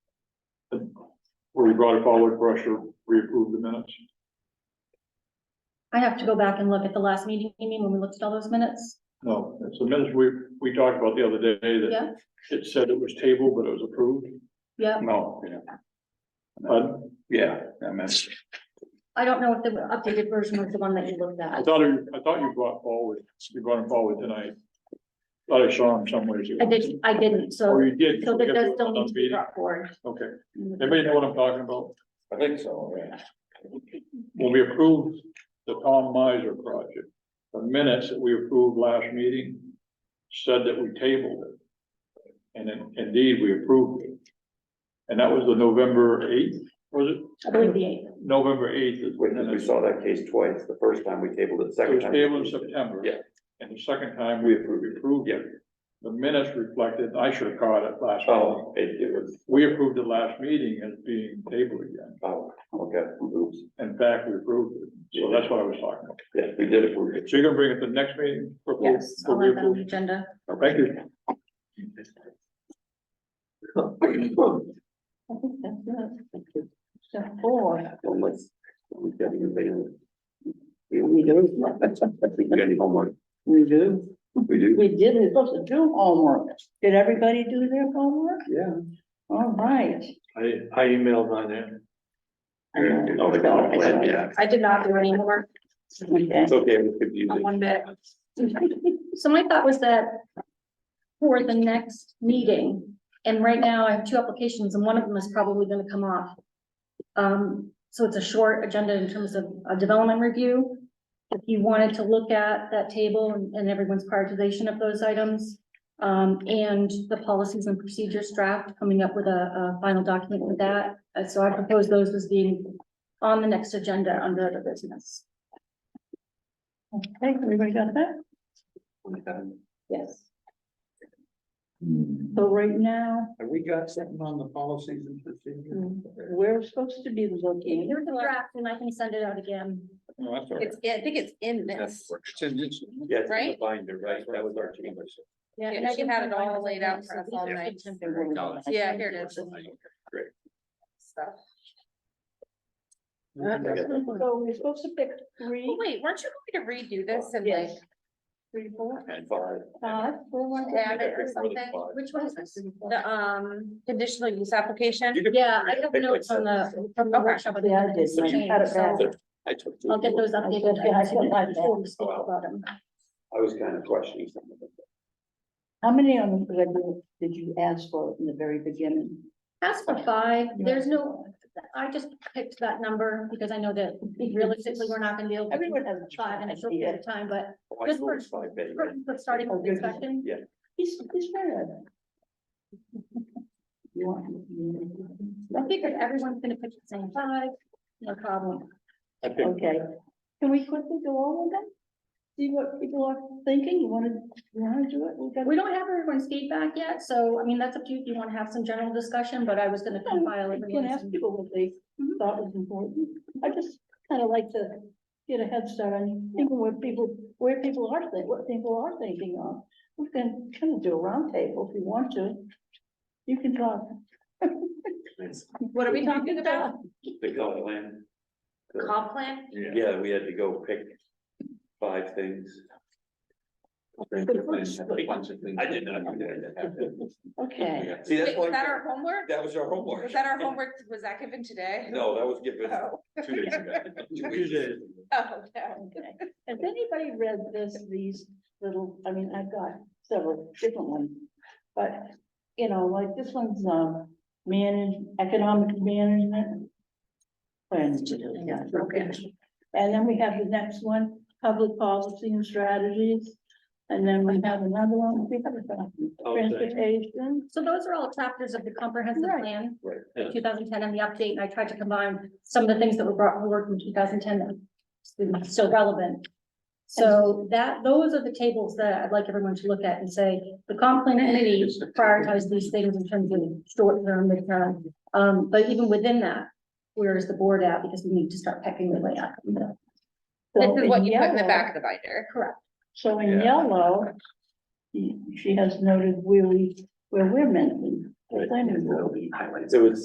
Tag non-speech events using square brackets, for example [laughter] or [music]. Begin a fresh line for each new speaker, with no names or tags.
where you brought it forward for us to reapprove the minutes.
I have to go back and look at the last meeting, you mean, when we looked at all those minutes?
No, it's the minutes we, we talked about the other day that
Yeah,
it said it was tabled, but it was approved.
yeah.
No, yeah,
But
yeah, I meant,
I don't know if the updated version was the one that you looked
I
at.
thought, you- I thought you brought forward, you brought it forward tonight. Thought I saw him somewhere.
I did, I didn't, so,
Or you did.
so
we
that
got to
does still need to be
meeting.
brought forward.
Okay, anybody know what I'm talking about?
I think so, yeah.
When we approved the Tom Miser project, the minutes that we approved last meeting said that we tabled it. And then indeed, we approved it. And that was the November eighth, was it?
I believe the eighth.
November eighth is when
Witness, we
it
saw that case twice, the first time we tabled it, second
was
time.
tabled in September.
Yeah.
And the second time we approved, approved it. The minutes reflected, I should have caught it last meeting.
Oh, it, it was,
We approved it last meeting as being tabled again.
oh, okay, oops,
In fact, we approved it. So that's what I was talking about.
yeah, we did it, we
So you're gonna bring it to the next meeting? for- for-
Yes,
for
I'll have that on the
reapproval?
agenda.
Thank you.
I think that's it. So four.
Unless, we got anything. We we do. We got any homework,
We do.
we do,
Mm-hmm. We did, we we're supposed to do homework. Did everybody do their homework?
yeah.
All right.
I, I emailed mine in.
Oh, the comp plan, yeah,
I did not do any more.
Okay.
it's okay, we could use it.
One bit. So my thought was that for the next meeting, and right now I have two applications and one of them is probably gonna come off. Um, so it's a short agenda in terms of a development review. If you wanted to look at that table and and everyone's prioritization of those items, um, and the policies and procedures draft, coming up with a, a final document with that. Uh, so I propose those as being on the next agenda under the business.
Okay, everybody got that?
Yes.
So right now,
Have we got something on the policies and procedures?
we're supposed to be looking.
Here's the draft and I can send it out again.
Oh,
No, that's all right.
It's, I think it's in this.
It's in this-
Yeah, it's in the
Right?
binder, right, that was our change.
Yeah,
and I can have it all laid out for us all night. Yeah, here it is. So-
So we're supposed to pick three,
Oh, Wait, weren't you going to redo this and like
Yes. three, four,
And five.
Uh,
five, Uh, four, one,
add it or something?
Which one is this?
The, um, conditional use application?
Yeah, I have notes on the, from the
Okay.
workshop. of the
Yeah, I did,
minutes
mine.
change,
Had it
so
back.
I took. two.
I'll get those updated.
Yeah, I put mine
before we speak
Oh,
about them.
I was kind of questioning some of it.
How many of them did you- did you ask for in the very beginning?
As for five, there's no, I just picked that number because I know that realistically, we're not gonna be able to do
Everyone has a
five in a short period
idea. Oh,
of time, but
Oh, I
Just
know
for-
it's five days.
for- for starting with the discussion.
He's, he's very. [laughs] You want?
I figured everyone's gonna pick the same five, no problem.
I picked
Okay, can we quickly go over them? See what people are thinking, you wanna, you wanna do it? We've got-
We don't have everyone's feedback yet, so I mean, that's up to you if you wanna have some general discussion, but I was gonna compile
You can ask
everyone's.
people what they thought was important, I just kinda like to get a head start on thinking what people, where people are thinking, what people are thinking on. We can kinda do a roundtable if you want to, you can talk. [laughs]
What are we talking about?
The comp plan. The-
Comp plan?
Yeah, we had to go pick five things. I did not. do that.
Okay,
[laughs] See, that's
Wait, was
why,
that our homework?
that was our homework.
Was that our homework? Was that given today?
[laughs] No, that was given
[laughs] Oh,
two days ago. [laughs] Two weeks
Tuesday.
ago.
oh, no.
okay, has anybody read this, these little, I mean, I've got several different ones. But, you know, like this one's, um, manage, economic management. Plans to do, yeah, okay. And then we have the next one, public policy and strategies. And then we have another one, we have about transportation.
So those are all chapters of the comprehensive
Right.
plan,
Right.
two thousand ten and the update, and I tried to combine some of the things that were brought forward from two thousand ten. Still relevant. So that, those are the tables that I'd like everyone to look at and say, the comp plan committee prioritized these things in terms of short term, mid term. Um, but even within that, where is the board at? Because we need to start pecking the way up.
So
This is what you put in the
yellow-
back of the binder.
Correct.
So in
Yeah.
yellow, she she has noted where we, where we're meant to be. the planning board.
So it's